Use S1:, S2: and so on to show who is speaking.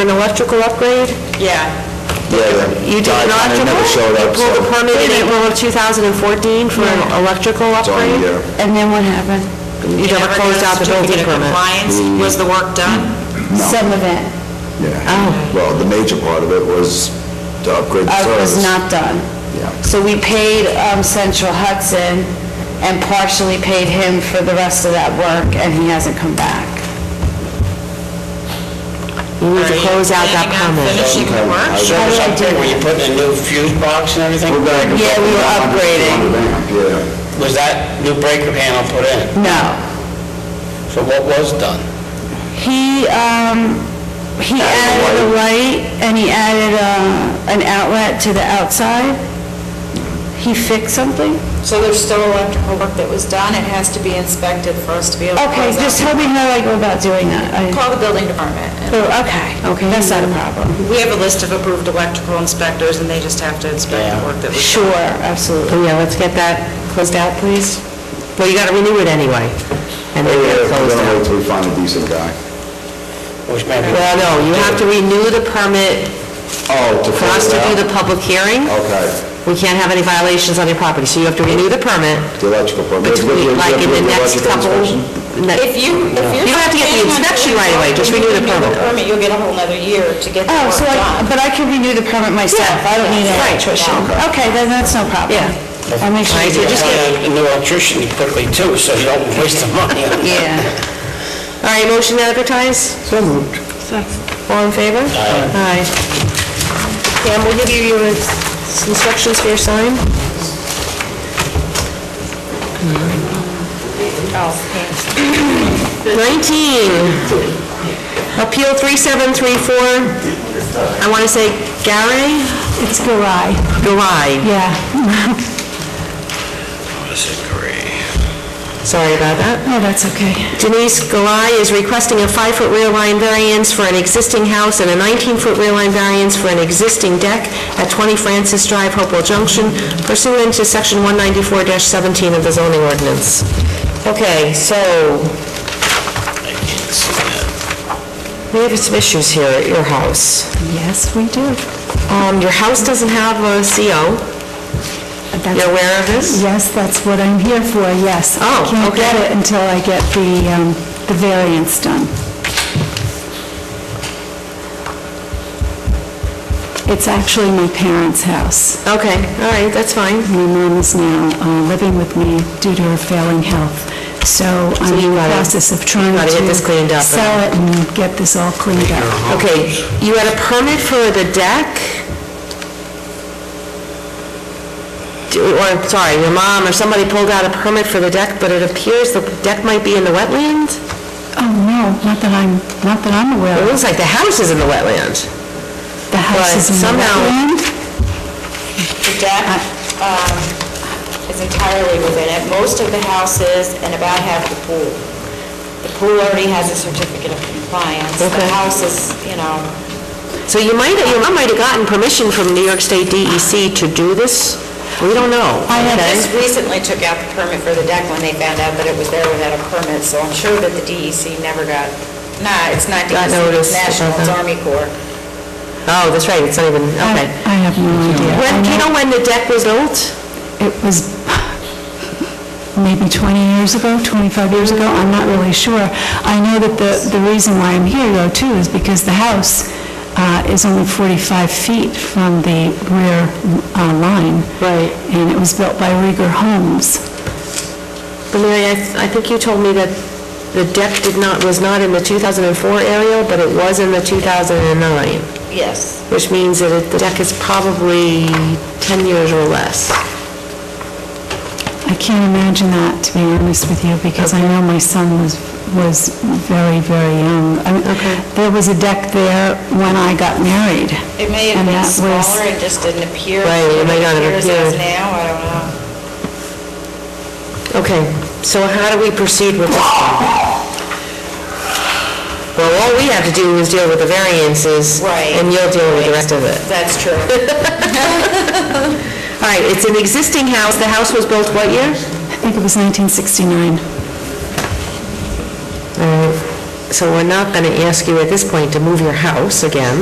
S1: an electrical upgrade?
S2: Yeah.
S3: Yeah, the
S1: You did
S3: guy
S1: an
S3: kinda
S1: electrical?
S3: never showed up, so
S1: You pulled a permit in April of 2014 for an electrical
S3: it's on
S1: upgrade?
S3: here.
S4: And then what happened?
S1: You never closed out the building
S2: Certificate of
S1: permit?
S2: compliance, was the work done?
S4: Some of it,
S1: Oh.
S3: Yeah. Well, the major part of it was to upgrade the
S4: uh,
S3: service.
S4: was not done.
S3: Yeah.
S4: So we paid um, Central Hudson and partially paid him for the rest of that work, and he hasn't come back.
S1: You need to
S2: Are you
S1: close out that
S2: planning on
S1: permit.
S2: Finishing the work?
S3: I-
S4: How did I do
S5: Were
S4: that?
S5: you putting a new fuse box and everything?
S3: We're back
S4: Yeah, we were
S3: up to
S4: upgrading.
S3: 100 amp, Yeah,
S5: Was that new breaker panel put in?
S4: No.
S5: So what was done?
S4: He, um, he added a light, and he added uh, an outlet to the outside. He fixed something?
S2: So there's still electrical work that was done, it has to be inspected for us to be able to
S4: Okay,
S2: close
S4: just
S2: out.
S4: tell me how I go about doing that. I-
S2: Call the building department. and-
S4: Oh, Okay, okay, that's not a problem.
S2: We have a list of approved electrical inspectors, and they just have to inspect the work that was
S4: Sure, absolutely.
S1: Oh, Yeah, let's get that closed out, please. Well, you gotta renew it anyway, and then get
S3: Oh, Yeah,
S1: it
S3: we're
S1: closed
S3: gonna
S1: out.
S3: wait till we find a decent guy.
S5: Which maybe...
S1: Well, no, you have to renew the permit
S3: Oh, to
S1: for us
S3: close
S1: to
S3: it out?
S1: do the public hearing.
S3: Oh. Okay,
S1: We can't have any violations on your property, so you have to renew the permit
S3: the electrical permit. You have to do
S1: between,
S3: the
S1: like, in the next
S3: electrical
S1: couple...
S3: inspection?
S1: ne-
S2: If you, if you're...
S1: You don't have to get the
S2: planning on
S1: inspection
S2: doing
S1: right away,
S2: something,
S1: just renew the
S2: you can do
S1: permit.
S2: You'll get a whole nother year to get the
S4: Oh,
S2: work
S4: so I,
S2: done.
S4: but I can renew the permit myself, I don't need an
S1: Yeah, right,
S4: electrician.
S3: yeah.
S4: Okay, then that's no problem.
S1: Yeah.
S4: I'll make sure.
S1: Right,
S4: you
S1: so
S4: do
S1: just
S4: that.
S5: Find a new electrician quickly too, so you don't waste the money on that.
S4: Yeah,
S1: All right, motion to advertise? So moved. All in favor? Aye. Pam, we'll give you your ins- instructions for your sign. Nineteen, Appeal 3734, I want to say Gary? It's Garai. Garai,
S4: yeah.
S1: sorry about that.
S4: Oh, that's okay.
S1: Denise Galai is requesting a five-foot rear line variance for an existing house and a 19-foot rear line variance for an existing deck at 20 Francis Drive, Hopewell Junction pursuant to Section 194-17 of the zoning ordinance. Okay, so... We have some issues here at your house.
S4: Yes, we do.
S1: Um, Your house doesn't have a CO. You're aware of this?
S4: Yes, that's what I'm here for, yes.
S1: Oh,
S4: Can't get
S1: okay.
S4: it until I get the, um, the variance done. It's actually my parents' house.
S1: Okay, all right, that's fine.
S4: My mom is now uh, living with me due to her failing health, so I'm in
S1: you
S4: the
S1: gotta-
S4: process of trying
S1: gotta get
S4: to
S1: this cleaned up.
S4: sell it and get this all cleaned up.
S1: Okay, you had a permit for the deck? Do- Or, sorry, your mom or somebody pulled out a permit for the deck, but it appears the deck might be in the wetland?
S4: Oh, no, not that I'm, not that I'm aware
S1: It
S4: of.
S1: looks like the house is in the wetland.
S4: The house
S1: but
S4: is in the
S1: somehow-
S4: wetland.
S2: The deck um, is entirely within it, most of the houses, and about half the pool. The pool already has a certificate of compliance, the
S1: Okay.
S2: house is, you know,
S1: So you might, your mom might have gotten permission from New York State DEC to do this? We don't know.
S4: I
S2: They
S4: have
S2: just recently took out the permit for the deck when they found out that it was there without a permit, so I'm sure that the DEC never got, nah, it's not
S1: Got
S2: DEC, it's
S1: noticed,
S2: National, it's
S1: okay.
S2: Army Corps.
S1: Oh, that's right, it's not even,
S4: I
S1: okay.
S4: I have no idea.
S1: When, do you know when the deck was built?
S4: It was maybe 20 years ago, 25 years ago, I'm not really sure. I know that the, the reason why I'm here though too is because the house uh, is only 45 feet from the rear uh, line.
S1: Right.
S4: And it was built by Rieger Homes.
S1: But Mary, I th- I think you told me that the deck did not, was not in the 2004 area, but it was in the 2009,
S2: Yes.
S1: which means that it- the deck is probably 10 years or less.
S4: I can't imagine that, to be honest with you, because I know my son was, was very, very young. I mean,
S1: Okay.
S4: There was a deck there when I got married.
S2: It may have
S4: and
S2: been
S4: that was-
S2: smaller and just didn't appear.
S1: Right, it may not have
S2: appears as
S1: appeared.
S2: now, I don't know.
S1: Okay, so how do we proceed with this? one? Well, all we have to do is deal with the variances.
S2: Right.
S1: And you'll deal with the rest of it.
S2: That's true.
S1: All right, it's an existing house. The house was built what year?
S4: I think it was 1969.
S1: Uh, So we're not going to ask you at this point to move your house again.